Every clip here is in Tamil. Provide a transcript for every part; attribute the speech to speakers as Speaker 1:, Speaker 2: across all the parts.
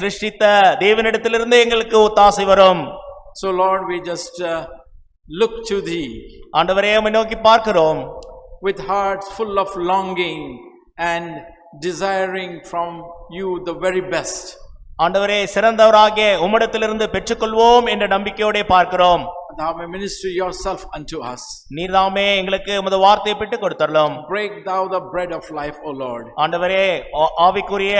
Speaker 1: சிருஷ்டித்த தேவனிடத்திலிருந்து எங்களுக்கு ஒத்தாசை வரும்
Speaker 2: So Lord, we just uh, look to thee
Speaker 1: ஆண்டவரே உம்மை நோக்கி பார்க்கிறோம்
Speaker 2: with hearts full of longing and desiring from you the very best.
Speaker 1: ஆண்டவரே சிறந்தவராகிய உம்மிடத்திலிருந்து பெற்றுக்கொள்வோம் என்ற நம்பிக்கையோட பார்க்கிறோம்
Speaker 2: Thou may minister yourself unto us.
Speaker 1: நீர்தாமே எங்களுக்கு உமது வார்த்தையை பெற்று கொடுத்தரலாம்
Speaker 2: Break thou the bread of life, O Lord.
Speaker 1: ஆண்டவரே ஆ- ஆவிக்குரிய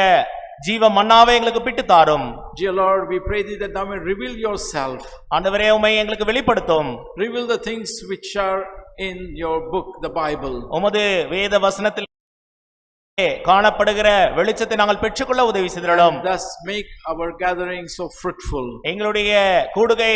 Speaker 1: ஜீவ மன்னாவை எங்களுக்கு பிட்டு தாரும்
Speaker 2: Dear Lord, we pray thee that thou may reveal yourself.
Speaker 1: ஆண்டவரே உம்மை எங்களுக்கு வெளிப்படுத்தும்
Speaker 2: Reveal the things which are in your book, the Bible.
Speaker 1: உமது வேத வசனத்தில் காணப்படுகிற வெளிச்சத்தை நாங்கள் பெற்றுக்கொள்ள உதவி செய்திடலாம்
Speaker 2: Thus make our gathering so fruitful.
Speaker 1: எங்களுடைய கூடுகை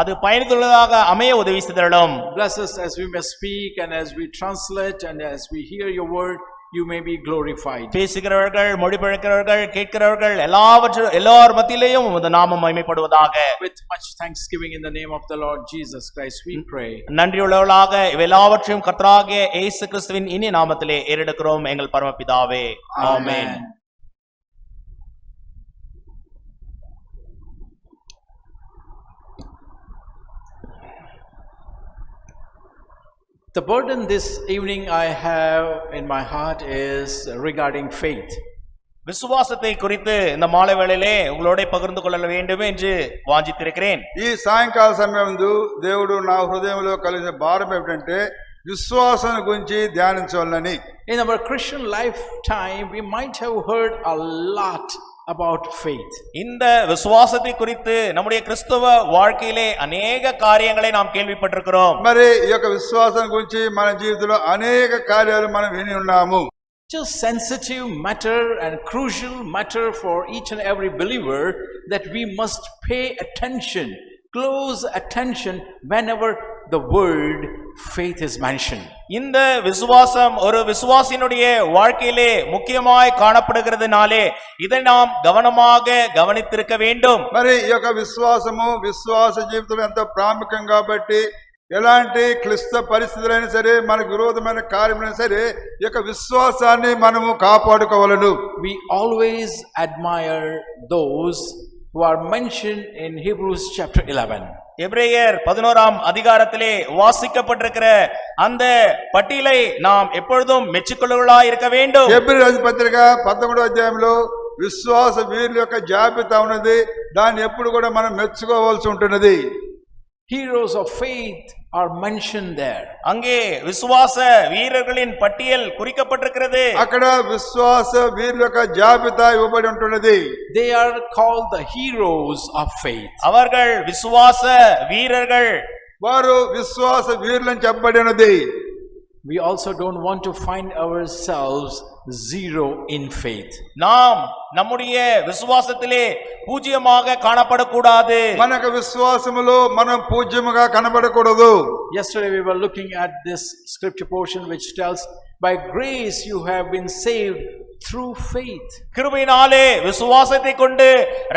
Speaker 1: அது பயனுள்ளதாக அமைய உதவி செய்திடலாம்
Speaker 2: Bless us as we may speak and as we translate and as we hear your word, you may be glorified.
Speaker 1: பேசுகிறவர்கள் மொழிபெயர்க்கிறவர்கள் கேட்கிறவர்கள் எல்லாவற்றும் எல்லார் மத்தியிலேயும் உமது நாமம் மகிமைப்படுவதாக
Speaker 2: With much thanksgiving in the name of the Lord Jesus Christ, we pray.
Speaker 1: நன்றியுள்ளவர்களாக இவை எல்லாவற்றையும் கர்த்தராகிய இயேசு கிறிஸ்துவின் இனி நாமத்திலே ஏறெடுக்கிறோம் எங்கள் பரமபிதாவே ஆமென்
Speaker 2: The burden this evening I have in my heart is regarding faith.
Speaker 1: விசுவாசத்தை குறித்து இந்த மாலை வேளையிலே உங்களோட பகிர்ந்து கொள்ள வேண்டும் என்று வாஞ்சித்திருக்கிறேன்
Speaker 3: ఈ సాయంకాల సమయంలో దేవుడు నా హృదయంలో కలిగిన భారం ఏమిటంటే విశ్వాసం గురించి ధ్యానించవాలని
Speaker 2: In our Christian lifetime, we might have heard a lot about faith.
Speaker 1: இந்த விசுவாசத்தை குறித்து நம்முடைய கிறிஸ்தவ வாழ்க்கையிலே அநேக காரியங்களை நாம் கேள்விப்பட்டிருக்கிறோம்
Speaker 3: మరి ఈ యొక్క విశ్వాసం గురించి మన జీవితంలో అనేక కార్యాలు మనం విని ఉన్నాము
Speaker 2: Just sensitive matter and crucial matter for each and every believer that we must pay attention, close attention whenever the word faith is mentioned.
Speaker 1: இந்த விசுவாசம் ஒரு விசுவாசியினுடைய வாழ்க்கையிலே முக்கியமாய் காணப்படுகிறதுனாலே இதை நாம் கவனமாக கவனித்திருக்க வேண்டும்
Speaker 3: మరి ఈ యొక్క విశ్వాసము విశ్వాస జీవితం ఎంతో ప్రాముఖ్యం కాబట్టి ఎలాంటి క్లిష్ట పరిస్థితులైనా సరే మనకు విరోధమైన కార్యమైనా సరే ఈ యొక్క విశ్వాసాన్ని మనము కాపాడుకోవలను
Speaker 2: We always admire those who are mentioned in Hebrews chapter 11.
Speaker 1: எபிரேயர் பதினோராம் அதிகாரத்திலே வாசிக்கப்பட்டிருக்கிற அந்த பட்டியலை நாம் எப்பொழுதும் மெச்சுக்கொள்ளவர்களா இருக்க வேண்டும்
Speaker 3: ఏప్రిల్ రాజు పత్రిక పదకొండో అధ్యాయంలో విశ్వాస వీరుల యొక్క జాబితా ఉన్నది దాన్ని ఎప్పుడు కూడా మనం మెచ్చుకోవాల్సి ఉంటున్నది
Speaker 2: Heroes of faith are mentioned there.
Speaker 1: அங்கே விசுவாச வீரர்களின் பட்டியல் குறிக்கப்பட்டிருக்கிறது
Speaker 3: అక్కడ విశ్వాస వీరుల యొక్క జాబితా ఇవ్వబడి ఉంటున్నది
Speaker 2: They are called the heroes of faith.
Speaker 1: அவர்கள் விசுவாச வீரர்கள்
Speaker 3: వారు విశ్వాస వీరులని చెప్పబడినది
Speaker 2: We also don't want to find ourselves zero in faith.
Speaker 1: நாம் நம்முடைய விசுவாசத்திலே பூஜ்யமாக காணப்படக்கூடாது
Speaker 3: మన యొక్క విశ్వాసములో మనం పూజ్యముగా కనబడకూడదు
Speaker 2: Yesterday we were looking at this scripture portion which tells, By grace you have been saved through faith.
Speaker 1: கிருபையினாலே விசுவாசத்தை கொண்டு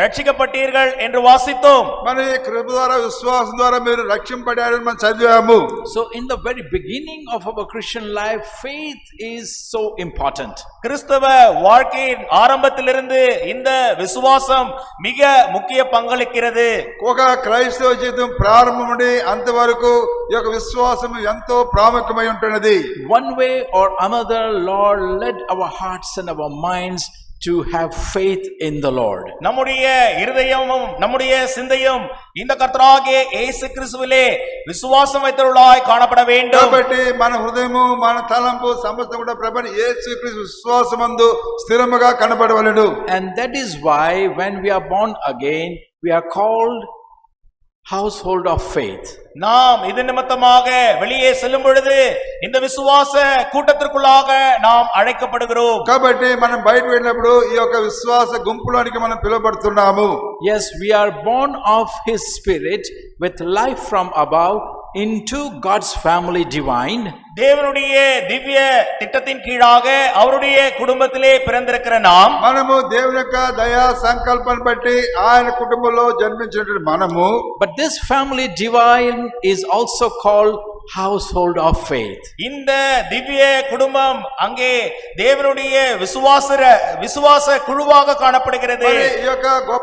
Speaker 1: ரட்சிக்கப்பட்டீர்கள் என்று வாசித்தோம்
Speaker 3: మన ఈ కృప ద్వారా విశ్వాసం ద్వారా మీరు రక్షింపడారని మనం చదివాము
Speaker 2: So, in the very beginning of our Christian life, faith is so important.
Speaker 1: கிறிஸ்தவ வாழ்க்கையின் ஆரம்பத்திலிருந்து இந்த விசுவாசம் மிக முக்கிய பங்களிக்கிறது
Speaker 3: ఒక క్రైస్తవ జీవితం ప్రారంభం నుండి అంతవరకు ఈ యొక్క విశ్వాసం ఎంతో ప్రాముఖ్యమై ఉంటున్నది
Speaker 2: One way or another, Lord, led our hearts and our minds to have faith in the Lord.
Speaker 1: நம்முடைய இருதயமும் நம்முடைய சிந்தையும் இந்த கர்த்தராகிய இயேசு கிறிஸ்துவிலே விசுவாசம் வைத்தவர்களாய் காணப்பட வேண்டும்
Speaker 3: కాబట్టి మన హృదయము మన తలంపు సమస్తం కూడా ప్రభని యేసుక్రీస్తు విశ్వాసమందు స్థిరముగా కనబడవలెను
Speaker 2: And that is why when we are born again, we are called household of faith.
Speaker 1: நாம் இது நிமித்தமாக வெளியே செல்லும் பொழுது இந்த விசுவாச கூட்டத்திற்குள்ளாக நாம் அழைக்கப்படுகிறோம்
Speaker 3: కాబట్టి మనం బయట వెళ్ళినప్పుడు ఈ యొక్క విశ్వాస గుంపులోనికి మనం పిలువబడుతున్నాము
Speaker 2: Yes, we are born of His Spirit with life from above into God's family divine,
Speaker 1: தேவனுடைய திவ்ய திட்டத்தின் கீழாக அவருடைய குடும்பத்திலே பிறந்திருக்கிற நாம்
Speaker 3: మనము దేవుని యొక్క దయా సంకల్పం బట్టి ఆయన కుటుంబంలో జన్మించినటువంటి మనము
Speaker 2: but this family divine is also called household of faith.
Speaker 1: இந்த திவ்ய குடும்பம் அங்கே தேவனுடைய விசுவாசர விசுவாச குழுவாக காணப்படுகிறது
Speaker 3: మరి ఈ యొక్క గొప్ప